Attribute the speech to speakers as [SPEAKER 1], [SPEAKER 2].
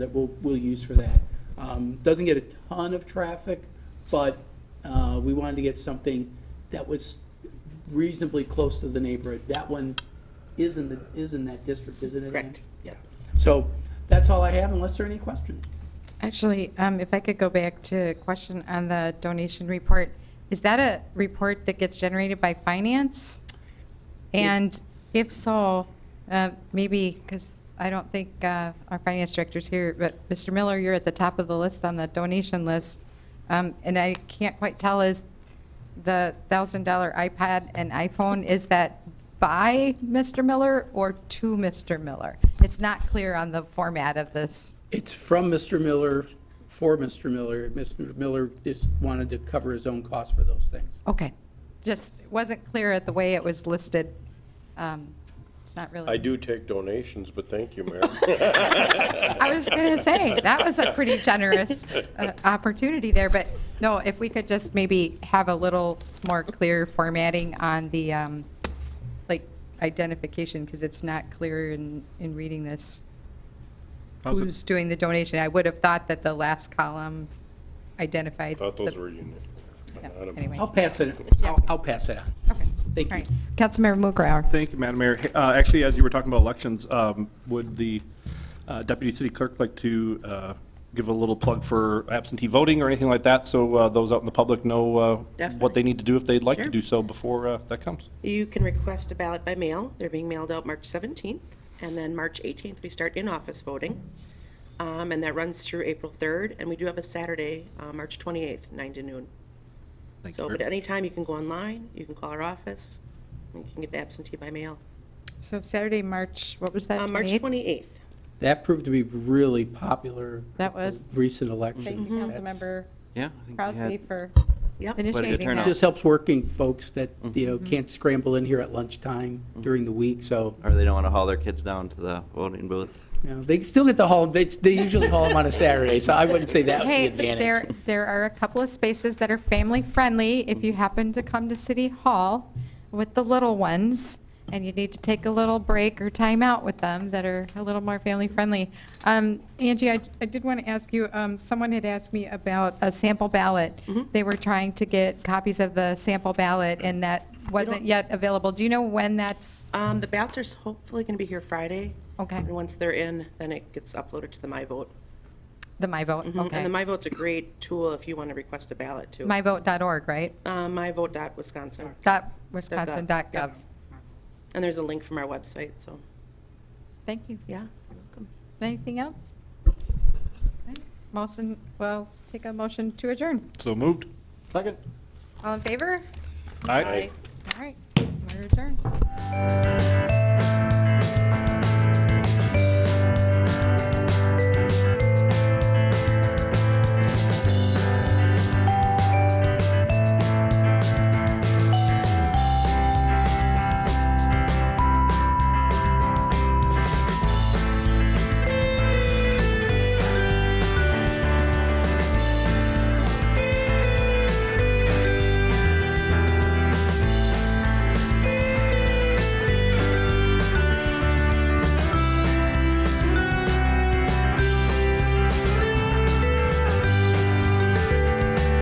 [SPEAKER 1] that we'll, we'll use for that. Um, Doesn't get a ton of traffic, but uh, we wanted to get something that was reasonably close to the neighborhood. That one is in the, is in that district, isn't it? Ann?
[SPEAKER 2] Correct.
[SPEAKER 1] Yeah. So that's all I have unless there are any questions.
[SPEAKER 3] Actually, um, if I could go back to a question on the donation report, is that a report that gets generated by finance? And if so, uh, maybe, because I don't think uh, our finance director's here, but Mr. Miller, you're at the top of the list on the donation list. Um, And I can't quite tell, is the $1,000 iPad and iPhone, is that by Mr. Miller or to Mr. Miller? It's not clear on the format of this.
[SPEAKER 1] It's from Mr. Miller, for Mr. Miller. Mr. Miller just wanted to cover his own costs for those things.
[SPEAKER 3] Okay, just wasn't clear at the way it was listed. Um, It's not really.
[SPEAKER 4] I do take donations, but thank you, Mayor.
[SPEAKER 3] I was going to say, that was a pretty generous uh, opportunity there, but no, if we could just maybe have a little more clear formatting on the, um, like, identification, because it's not clear in, in reading this.
[SPEAKER 5] How's it-
[SPEAKER 3] Who's doing the donation? I would have thought that the last column identified.
[SPEAKER 4] Thought those
[SPEAKER 3] the-
[SPEAKER 4] were unique.
[SPEAKER 3] yeah,
[SPEAKER 4] item.
[SPEAKER 3] Anyway.
[SPEAKER 1] I'll pass it, I'll, I'll pass it on.
[SPEAKER 3] Okay.
[SPEAKER 1] Thank
[SPEAKER 3] All
[SPEAKER 1] you.
[SPEAKER 3] right. Councilmember Mookrower.
[SPEAKER 5] Thank you, Madam Mayor. Uh, Actually, as you were talking about elections, um, would the uh, deputy city clerk like to uh, give a little plug for absentee voting or anything like that, so uh, those out in the public know uh, what
[SPEAKER 2] Definitely.
[SPEAKER 5] they need to do if they'd like to
[SPEAKER 2] Sure.
[SPEAKER 5] do so before uh, that comes?
[SPEAKER 2] You can request a ballot by mail. They're being mailed out March 17th, and then March 18th, we start in-office voting. Um, And that runs through April 3rd, and we do have a Saturday, uh, March 28th, 9 to noon.
[SPEAKER 5] Thank
[SPEAKER 2] So,
[SPEAKER 5] you.
[SPEAKER 2] but anytime, you can go online, you can call our office, and you can get absentee by mail.
[SPEAKER 3] So Saturday, March, what was that?
[SPEAKER 2] Uh, March
[SPEAKER 3] 28th?
[SPEAKER 2] 28th.
[SPEAKER 1] That proved to be really popular.
[SPEAKER 3] That was-
[SPEAKER 1] Recent elections.
[SPEAKER 3] Thank you, Councilmember
[SPEAKER 6] Yeah. I
[SPEAKER 3] Rousey,
[SPEAKER 6] think we had-
[SPEAKER 3] for
[SPEAKER 2] Yep.
[SPEAKER 3] initiating
[SPEAKER 1] It
[SPEAKER 6] turnout.
[SPEAKER 3] that.
[SPEAKER 1] just helps working folks that, you know, can't scramble in here at lunchtime during the week, so,
[SPEAKER 6] Or they don't want to haul their kids down to the voting booth.
[SPEAKER 1] you know, they still get to haul, they, they usually haul them on a Saturday, so I wouldn't say that was the
[SPEAKER 3] Hey, there,
[SPEAKER 1] advantage.
[SPEAKER 3] there are a couple of spaces that are family-friendly if you happen to come to City Hall with the little ones and you need to take a little break or time out with them that are a little more family-friendly. Um,
[SPEAKER 7] Angie, I, I did want to ask you, um, someone had asked me about,
[SPEAKER 3] A sample ballot,
[SPEAKER 1] Mm-hmm.
[SPEAKER 3] they were trying to get copies of the sample ballot and that wasn't yet available. Do you know when that's,
[SPEAKER 2] Um, The ballots are s- hopefully going to be here Friday.
[SPEAKER 3] Okay.
[SPEAKER 2] And once they're in, then it gets uploaded to the My Vote. Mm-hmm.
[SPEAKER 3] the My Vote?
[SPEAKER 2] And
[SPEAKER 3] Okay.
[SPEAKER 2] the My Vote's a great tool if you want to request a ballot, too.
[SPEAKER 3] MyVote.org, right?
[SPEAKER 2] Uh, myvote.wisconsin.
[SPEAKER 3] Dot
[SPEAKER 2] Dot gov,
[SPEAKER 3] Wisconsin dot
[SPEAKER 2] yep.
[SPEAKER 3] gov.
[SPEAKER 2] And there's a link from our website, so,
[SPEAKER 3] Thank you.
[SPEAKER 2] yeah, you're welcome.
[SPEAKER 3] Anything else? Motion, well, take a motion to adjourn.
[SPEAKER 5] So moved.
[SPEAKER 1] Second.
[SPEAKER 3] All in favor?
[SPEAKER 5] Aye.
[SPEAKER 3] All right, we're adjourned.